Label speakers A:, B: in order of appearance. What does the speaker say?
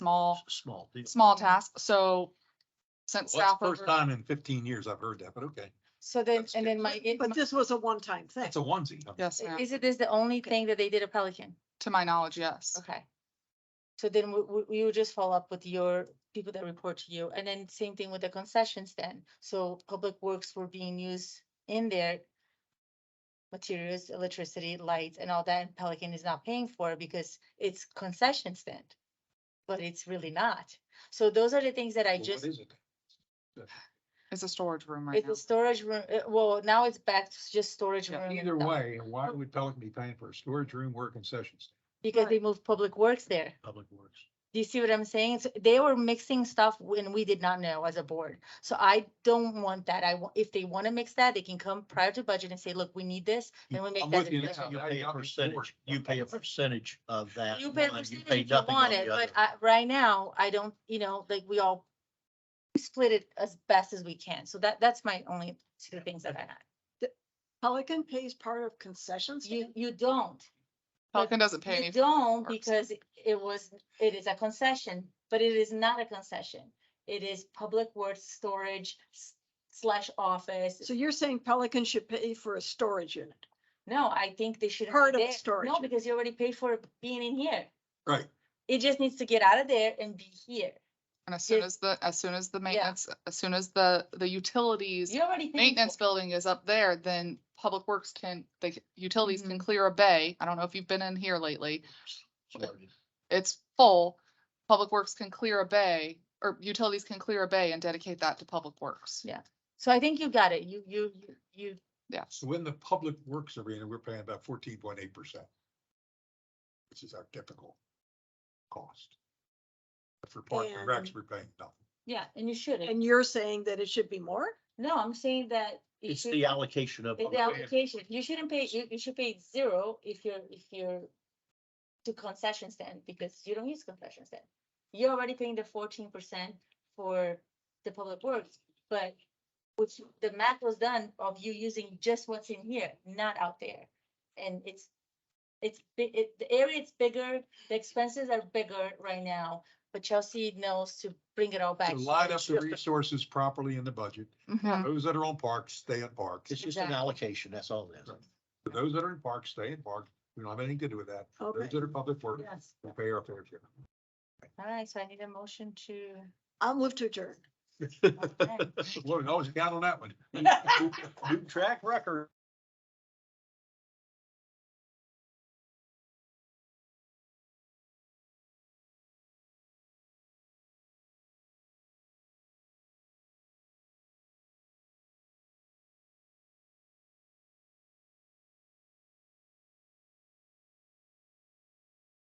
A: small,
B: Small deal.
A: small task. So since
B: Well,
A: staff.
B: that's the first
A: over-
B: time in fifteen years I've heard that, but okay,
C: So then,
B: That's
C: and then my, it-
D: But this was a one-time thing.
B: that's a onesie.
A: Yes,
C: my-
A: ma'am.
C: is it this the only thing that they did at Pelican?
A: To my knowledge, yes.
C: Okay. So then we, we, we would just follow up with your people that report to you, and then same thing with the concessions then. So public works were being used in their materials, electricity, lights, and all that, and Pelican is not paying for it because it's concession stand. But it's really not. So those are the things that I
B: Well, what
C: just.
B: is it?
A: It's a storage room right
C: It's
A: now.
C: a storage room, uh, well, now it's back to just storage room.
A: Yeah,
C: and
B: Either
C: stuff,
B: way, why would Pelican be paying for a storage room where concessions?
C: Because they moved public works there.
B: Public Works.
C: Do you see what I'm saying? So they were mixing stuff when we did not know as a board. So I don't want that. I, wa- if they want to mix that, they can come prior to budget and say, look, we need this, then we make
E: I'm
C: that.
E: with you.
C: adjustment.
B: Yeah.
E: You pay a percentage, you pay a percentage of that.
C: You pay a
E: one,
C: percentage
E: pay
C: if you
E: nothing on
C: want
E: the
C: it, but
E: other.
C: I, right now, I don't, you know, like we all we split it as best as we can. So that, that's my only two things that I had.
D: Pelican pays part of concessions.
C: You, you don't. but
A: Pelican doesn't pay
C: You
A: any.
C: don't
A: parks.
C: because it- it was, it is a concession, but it is not a concession. It is public works storage s- slash office.
D: So you're saying Pelican should pay for a storage unit?
C: No, I think they should.
D: Part of storage.
C: No, because you already paid for it being in here.
B: Right.
C: It just needs to get out of there and be here.
A: And as soon
C: Yeah.
A: as the, as soon as the maintenance, as soon as the, the utilities,
C: You already. paid for
A: maintenance
C: it.
A: building is up there, then public works can, the utilities can
C: Mhm.
A: clear a bay. I don't know if you've been in here lately.
E: Sorry.
A: It's full. Public works can clear a bay or utilities can clear a bay and dedicate that to public works.
C: Yeah. So I think you got it. You, you, you- you,
A: Yes.
B: So in the Public Works arena, we're paying about fourteen point eight percent. Which is our typical cost. But for Park and Recs,
D: And-
B: we're paying nothing.
C: yeah, and you shouldn't.
D: And you're saying that it should be more?
C: No, I'm saying that. it
E: It's
C: should-
E: the allocation of.
C: It's the application. You shouldn't pay, you, you should pay zero if you're, if you're to concession stand because you don't use concession stand. You're already paying the fourteen percent for the public works, but which the math was done of you using just what's in here, not out there. And it's, it's, bi- it, the area is bigger, the expenses are bigger right now, but Chelsea knows to bring it all back.
B: So line up the resources properly in the budget.
A: Mhm.
B: Those that are on parks, stay at parks.
E: It's just an
C: Exactly.
E: allocation, that's all it is.
B: Those that are in parks, stay in parks. We don't have anything to do with that. Those
D: Okay.
B: that are public works,
D: Yes.
B: we pay our fair share.
C: All right, so I need a motion to.
D: I'll move to adjourn.
C: Okay.
B: Well, always count on that one.
E: New track record.